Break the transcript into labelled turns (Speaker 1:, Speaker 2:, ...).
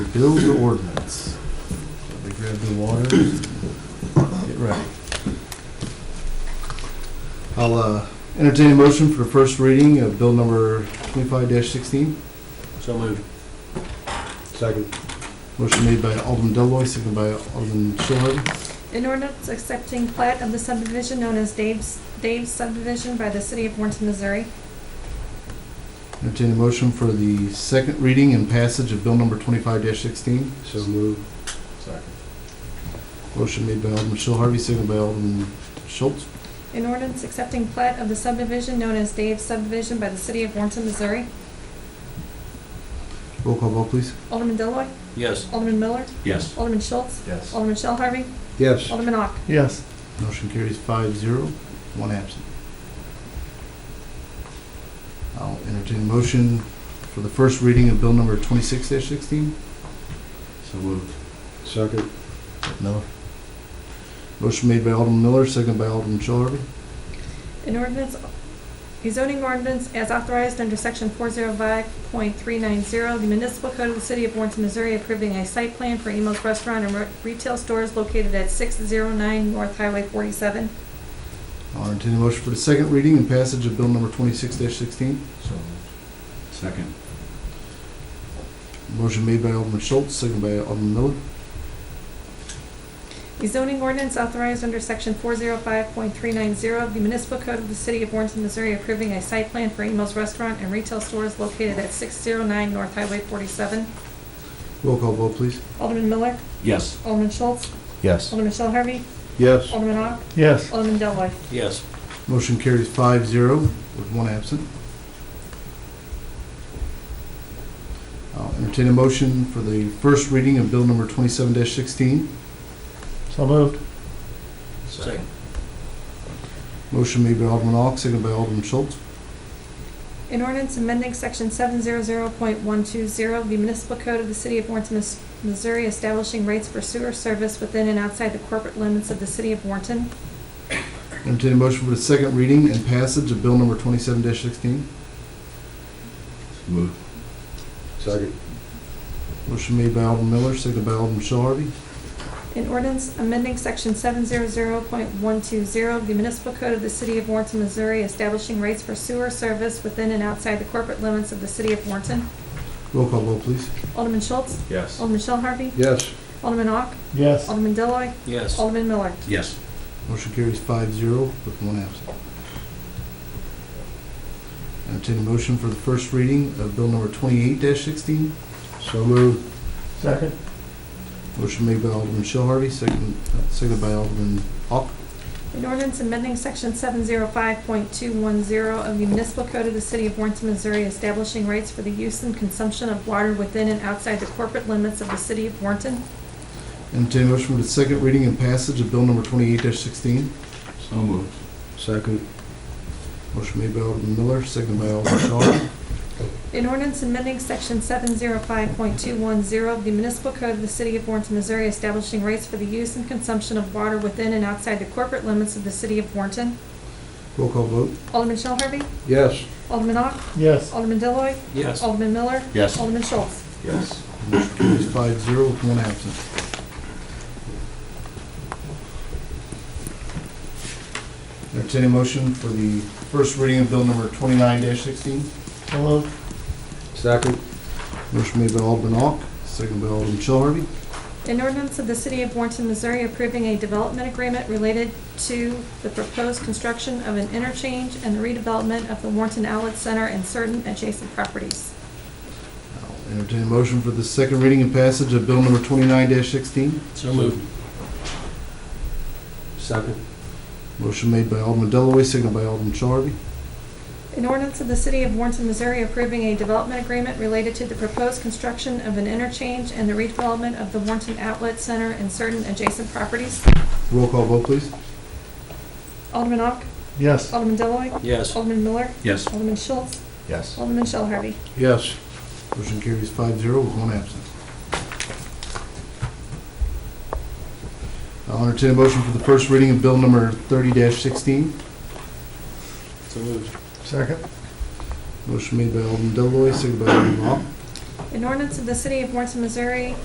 Speaker 1: build the ordinance. Let me grab the water. Get ready. I'll uh, entertain a motion for the first reading of bill number twenty-five sixteen.
Speaker 2: So moved. Second.
Speaker 1: Motion made by Alderman Deloy, seconded by Alderman Schiller.
Speaker 3: An ordinance accepting plat of the subdivision known as Dave's, Dave's subdivision by the city of Warrenton, Missouri.
Speaker 1: Entertain a motion for the second reading and passage of bill number twenty-five sixteen.
Speaker 2: So moved. Second.
Speaker 1: Motion made by Alderman Shell Harvey, seconded by Alderman Schultz.
Speaker 3: An ordinance accepting plat of the subdivision known as Dave's subdivision by the city of Warrenton, Missouri.
Speaker 1: Roll call vote, please.
Speaker 3: Alderman Deloy,
Speaker 2: Yes.
Speaker 3: Alderman Miller,
Speaker 2: Yes.
Speaker 3: Alderman Schultz,
Speaker 2: Yes.
Speaker 3: Alderman Shell Harvey,
Speaker 2: Yes.
Speaker 3: Alderman Ock.
Speaker 1: Yes. Motion carries five zero, one absent. I'll entertain a motion for the first reading of bill number twenty-six sixteen.
Speaker 2: So moved. Second.
Speaker 1: Miller. Motion made by Alderman Miller, seconded by Alderman Shell Harvey.
Speaker 3: An ordinance, a zoning ordinance as authorized under section four zero five point three nine zero, the municipal code of the city of Warrenton, Missouri approving a site plan for Emo's Restaurant and re- retail stores located at six zero nine North Highway forty-seven.
Speaker 1: I'll entertain a motion for the second reading and passage of bill number twenty-six sixteen.
Speaker 2: So moved. Second.
Speaker 1: Motion made by Alderman Schultz, seconded by Alderman Miller.
Speaker 3: A zoning ordinance authorized under section four zero five point three nine zero of the municipal code of the city of Warrenton, Missouri approving a site plan for Emo's Restaurant and retail stores located at six zero nine North Highway forty-seven.
Speaker 1: Roll call vote, please.
Speaker 3: Alderman Miller,
Speaker 2: Yes.
Speaker 3: Alderman Schultz,
Speaker 2: Yes.
Speaker 3: Alderman Shell Harvey,
Speaker 2: Yes.
Speaker 3: Alderman Ock,
Speaker 1: Yes.
Speaker 3: Alderman Deloy.
Speaker 2: Yes.
Speaker 1: Motion carries five zero with one absent. I'll entertain a motion for the first reading of bill number twenty-seven sixteen.
Speaker 4: So moved.
Speaker 2: Second.
Speaker 1: Motion made by Alderman Ock, seconded by Alderman Schultz.
Speaker 3: An ordinance amending section seven zero zero point one two zero of the municipal code of the city of Warrenton, Mis- Missouri establishing rates for sewer service within and outside the corporate limits of the city of Warrenton.
Speaker 1: Entertain a motion for the second reading and passage of bill number twenty-seven sixteen.
Speaker 2: Moved. Second.
Speaker 1: Motion made by Alderman Miller, seconded by Alderman Shell Harvey.
Speaker 3: An ordinance amending section seven zero zero point one two zero of the municipal code of the city of Warrenton, Missouri establishing rates for sewer service within and outside the corporate limits of the city of Warrenton.
Speaker 1: Roll call vote, please.
Speaker 3: Alderman Schultz,
Speaker 2: Yes.
Speaker 3: Alderman Shell Harvey,
Speaker 2: Yes.
Speaker 3: Alderman Ock,
Speaker 4: Yes.
Speaker 3: Alderman Deloy,
Speaker 2: Yes.
Speaker 3: Alderman Miller.
Speaker 2: Yes.
Speaker 1: Motion carries five zero with one absent. Entertain a motion for the first reading of bill number twenty-eight sixteen.
Speaker 2: So moved.
Speaker 4: Second.
Speaker 1: Motion made by Alderman Shell Harvey, second, uh, seconded by Alderman Ock.
Speaker 3: An ordinance amending section seven zero five point two one zero of the municipal code of the city of Warrenton, Missouri, establishing rates for the use and consumption of water within and outside the corporate limits of the city of Warrenton.
Speaker 1: Entertained motion for the second reading and passage of bill number twenty-eight sixteen.
Speaker 2: So moved. Second.
Speaker 1: Motion made by Alderman Miller, seconded by Alderman Shell Harvey.
Speaker 3: An ordinance amending section seven zero five point two one zero of the municipal code of the city of Warrenton, Missouri, establishing rates for the use and consumption of water within and outside the corporate limits of the city of Warrenton.
Speaker 1: Roll call vote.
Speaker 3: Alderman Shell Harvey,
Speaker 2: Yes.
Speaker 3: Alderman Ock,
Speaker 4: Yes.
Speaker 3: Alderman Deloy,
Speaker 2: Yes.
Speaker 3: Alderman Miller,
Speaker 2: Yes.
Speaker 3: Alderman Schultz.
Speaker 2: Yes.
Speaker 1: Motion carries five zero with one absent. Entertained motion for the first reading of bill number twenty-nine sixteen.
Speaker 4: So moved.
Speaker 2: Second.
Speaker 1: Motion made by Alderman Ock, seconded by Alderman Shell Harvey.
Speaker 3: An ordinance of the City of Warrenton, Missouri approving a development agreement related to the proposed construction of an interchange and the redevelopment of the Warrenton Outlet Center and certain adjacent properties.
Speaker 1: I'll entertain a motion for the second reading and passage of bill number twenty-nine sixteen.
Speaker 2: So moved. Second.
Speaker 1: Motion made by Alderman Delloy, seconded by Alderman Shelby.
Speaker 3: An ordinance of the City of Warrenton, Missouri approving a development agreement related to the proposed construction of an interchange and the redevelopment of the Warrenton Outlet Center and certain adjacent properties.
Speaker 1: Roll call vote, please.
Speaker 3: Alderman Ock,
Speaker 4: Yes.
Speaker 3: Alderman Deloy,
Speaker 2: Yes.
Speaker 3: Alderman Miller,
Speaker 2: Yes.
Speaker 3: Alderman Schultz,
Speaker 2: Yes.
Speaker 3: Alderman Shell Harvey.
Speaker 2: Yes.
Speaker 1: Motion carries five zero with one absent. I'll entertain a motion for the first reading of bill number thirty sixteen.
Speaker 2: So moved.
Speaker 4: Second.
Speaker 1: Motion made by Alderman Delloy, seconded by Alderman Ock.
Speaker 3: An ordinance of the City of Warrenton, Missouri